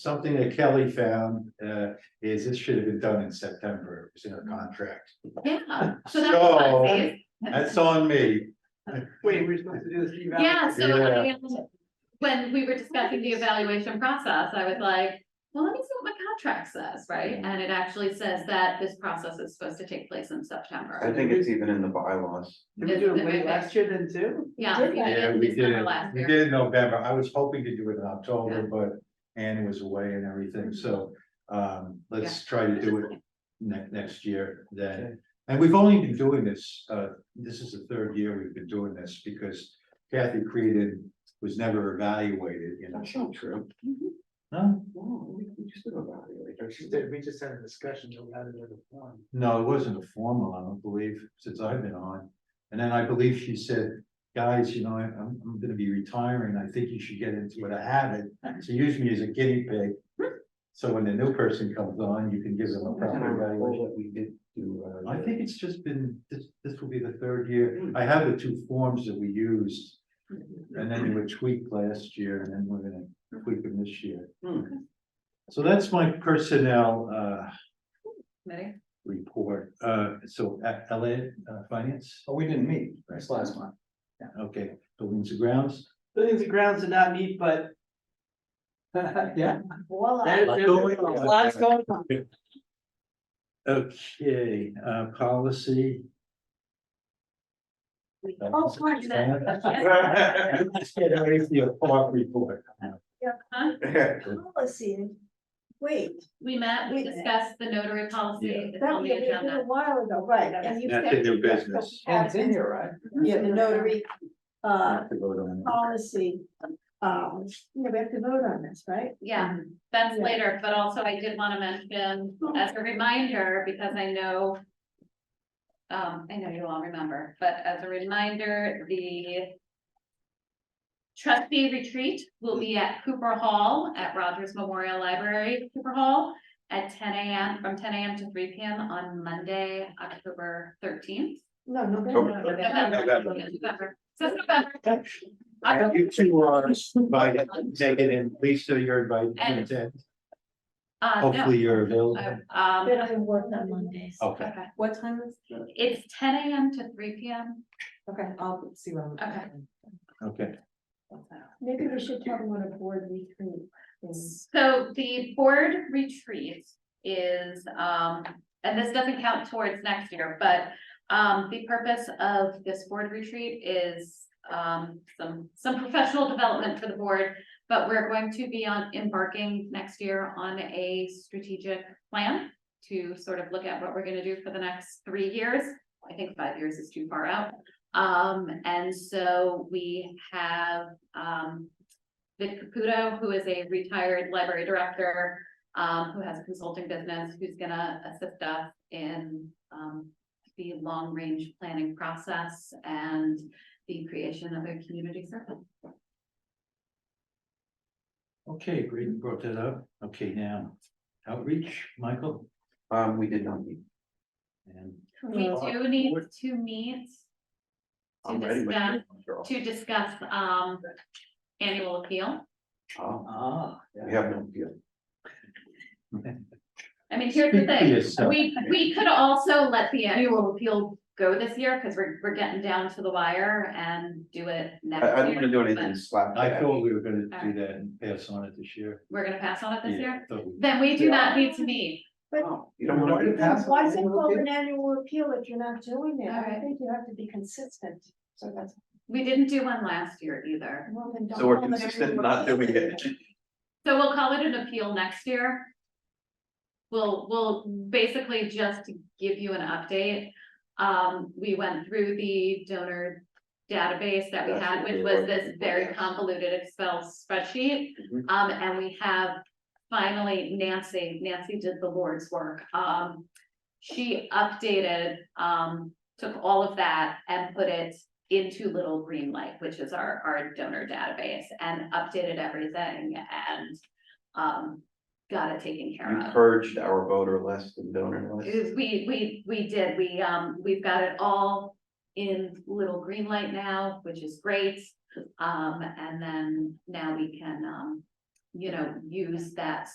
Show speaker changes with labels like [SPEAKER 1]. [SPEAKER 1] something that Kelly found, uh, is this should have been done in September, it was in our contract.
[SPEAKER 2] Yeah, so that's what I'm saying.
[SPEAKER 1] That's on me.
[SPEAKER 3] Wait, we're supposed to do this. eval-
[SPEAKER 2] Yeah, so I,
[SPEAKER 1] Yeah.
[SPEAKER 2] um, when we were discussing the evaluation process, I was like, well, let me see what my contract says, right? And it actually says that this process is supposed to take place in
[SPEAKER 4] I
[SPEAKER 2] September.
[SPEAKER 4] think it's even in the bylaws.
[SPEAKER 3] Did we do it way last year then too?
[SPEAKER 2] Yeah.
[SPEAKER 5] Did that?
[SPEAKER 1] Yeah, we did,
[SPEAKER 2] December
[SPEAKER 1] it-
[SPEAKER 2] last
[SPEAKER 1] we
[SPEAKER 2] year.
[SPEAKER 1] did in November, I was hoping to do it in October, but Anne was away and everything, so, um, let's try to do it ne- next year
[SPEAKER 3] Okay.
[SPEAKER 1] then. And we've only been doing this, uh, this is the third year we've been doing this, because Kathy created, was never evaluated, you know.
[SPEAKER 4] That's not true.
[SPEAKER 2] Mm-hmm.
[SPEAKER 1] No,
[SPEAKER 4] No, we we just did evaluate. don't
[SPEAKER 3] She
[SPEAKER 4] you
[SPEAKER 3] said
[SPEAKER 4] think?
[SPEAKER 3] we just had a discussion about it at the one.
[SPEAKER 1] no, it wasn't a formal, I don't believe, since I've been on. And then I believe she said, guys, you know, I- I'm, I'm gonna be retiring, I think you should get into it, I habit. She used me as a guinea pig. So when the new person comes on, you can give them a
[SPEAKER 4] That's not
[SPEAKER 1] proper evaluation.
[SPEAKER 4] all that we did do. uh,
[SPEAKER 1] I
[SPEAKER 4] the-
[SPEAKER 1] think it's just been, this, this will be the third year, I have the two forms that we used. And then you were tweaked last year, and then we're gonna tweak them this year.
[SPEAKER 4] Hmm.
[SPEAKER 1] So that's my personnel, uh,
[SPEAKER 2] Ready?
[SPEAKER 1] report, uh, so, uh, LA, uh, finance?
[SPEAKER 4] Oh, we didn't meet. That's last month.
[SPEAKER 1] Okay, buildings and grounds,
[SPEAKER 3] Buildings and grounds did not meet, but. Yeah.
[SPEAKER 5] Voila.
[SPEAKER 3] there-
[SPEAKER 1] Lot
[SPEAKER 3] there-
[SPEAKER 1] going on.
[SPEAKER 3] Lots going on.
[SPEAKER 1] okay, uh, policy.
[SPEAKER 5] Oh, sorry, that-
[SPEAKER 1] I just get out of your park report.
[SPEAKER 2] Huh?
[SPEAKER 5] Policy, wait,
[SPEAKER 2] We met, we discussed the notary policy,
[SPEAKER 1] Yeah.
[SPEAKER 2] it's
[SPEAKER 5] that
[SPEAKER 2] on
[SPEAKER 5] was
[SPEAKER 2] the
[SPEAKER 5] it was
[SPEAKER 2] agenda.
[SPEAKER 5] a while ago, right, and you said.
[SPEAKER 1] That's in your business.
[SPEAKER 3] And it's in here, right?
[SPEAKER 5] Yeah, the notary, uh,
[SPEAKER 1] Have to vote on it.
[SPEAKER 5] policy, um, you know, we have to vote on this, right?
[SPEAKER 2] Yeah, that's
[SPEAKER 5] Yeah.
[SPEAKER 2] later, but also I did wanna mention as a reminder, because I know. Um, I know you all remember, but as a reminder, the. Trustee retreat will be at Cooper Hall at Rogers Memorial Library, Cooper Hall. At ten AM, from ten AM to three PM on Monday, October thirteenth.
[SPEAKER 5] No, November.
[SPEAKER 1] November.
[SPEAKER 2] November, so it's November.
[SPEAKER 1] And You two are invited, take it in, Lisa, you're invited, to
[SPEAKER 2] And-
[SPEAKER 1] attend.
[SPEAKER 2] Uh, no,
[SPEAKER 1] hopefully you're
[SPEAKER 2] I-
[SPEAKER 1] available.
[SPEAKER 5] Then
[SPEAKER 2] um,
[SPEAKER 5] I work on Mondays.
[SPEAKER 4] Oh.
[SPEAKER 1] Okay,
[SPEAKER 2] okay,
[SPEAKER 6] What time is,
[SPEAKER 2] it's ten AM to three PM.
[SPEAKER 6] okay, I'll see what I'm.
[SPEAKER 2] Okay.
[SPEAKER 1] okay,
[SPEAKER 5] Maybe we should tell them what a board retreat is.
[SPEAKER 2] So the board retreat is, um, and this doesn't count towards next year, but. Um, the purpose of this board retreat is, um, some, some professional development for the board. But we're going to be on embarking next year on a strategic plan. To sort of look at what we're gonna do for the next three years. I think five years is too far out. Um, and so we have, um, Vic Caputo, who is a retired library director, um, who has a consulting business, who's gonna assist us in, um, the long-range planning process and the creation of a community circle.
[SPEAKER 1] okay, great, you brought that up, okay, now, outreach, Michael,
[SPEAKER 4] Um, we did not meet.
[SPEAKER 1] and
[SPEAKER 2] We do need
[SPEAKER 1] What-
[SPEAKER 2] to meet to
[SPEAKER 4] I'm ready. with
[SPEAKER 2] discuss,
[SPEAKER 4] you, girl.
[SPEAKER 2] to discuss, um, annual appeal.
[SPEAKER 4] Oh,
[SPEAKER 3] Ah,
[SPEAKER 4] We have no deal.
[SPEAKER 2] I mean, here's the
[SPEAKER 1] Speak for
[SPEAKER 2] thing,
[SPEAKER 1] yourself.
[SPEAKER 2] we, we could also let the annual appeal go this year, because we're, we're getting down to the wire and do it next
[SPEAKER 4] I,
[SPEAKER 2] year.
[SPEAKER 4] I don't wanna do anything
[SPEAKER 2] but
[SPEAKER 4] slap.
[SPEAKER 1] I
[SPEAKER 4] back.
[SPEAKER 1] thought we were gonna do that and pass on it this year.
[SPEAKER 2] We're gonna pass on it this
[SPEAKER 1] Yeah, I
[SPEAKER 2] year,
[SPEAKER 1] thought we-
[SPEAKER 2] then we do not need to meet,
[SPEAKER 4] No, Oh, You don't wanna.
[SPEAKER 3] Why
[SPEAKER 4] do
[SPEAKER 3] did
[SPEAKER 4] that?
[SPEAKER 3] that-
[SPEAKER 5] Why is it called an annual appeal if you're not doing it? I
[SPEAKER 2] Alright.
[SPEAKER 5] think you have to be consistent, so that's.
[SPEAKER 2] we didn't do one last year either.
[SPEAKER 5] well, then don't
[SPEAKER 4] So we're
[SPEAKER 5] call it an
[SPEAKER 4] consistent
[SPEAKER 5] annual
[SPEAKER 4] not doing
[SPEAKER 5] appeal.
[SPEAKER 4] it.
[SPEAKER 2] So we'll call it an appeal next year. We'll, we'll basically just give you an update. Um, we went through the donor database that we
[SPEAKER 4] That's
[SPEAKER 2] had,
[SPEAKER 4] what
[SPEAKER 2] which
[SPEAKER 4] we
[SPEAKER 2] was
[SPEAKER 4] were
[SPEAKER 2] this
[SPEAKER 4] looking for,
[SPEAKER 2] very
[SPEAKER 4] yes.
[SPEAKER 2] convoluted Excel spreadsheet.
[SPEAKER 4] Mhm.
[SPEAKER 2] Um, and we have finally Nancy, Nancy did the Lord's work. Um, she updated, um, took all of that and put it into Little Green Light, which is our, our donor database and updated everything and, um, got it taken care
[SPEAKER 4] You
[SPEAKER 2] of.
[SPEAKER 4] purged our voter list and donor list.
[SPEAKER 2] Is we, we, we did, we, um, we've got it all in little green light now, which is great. Um, and then now we can, um, you know, use that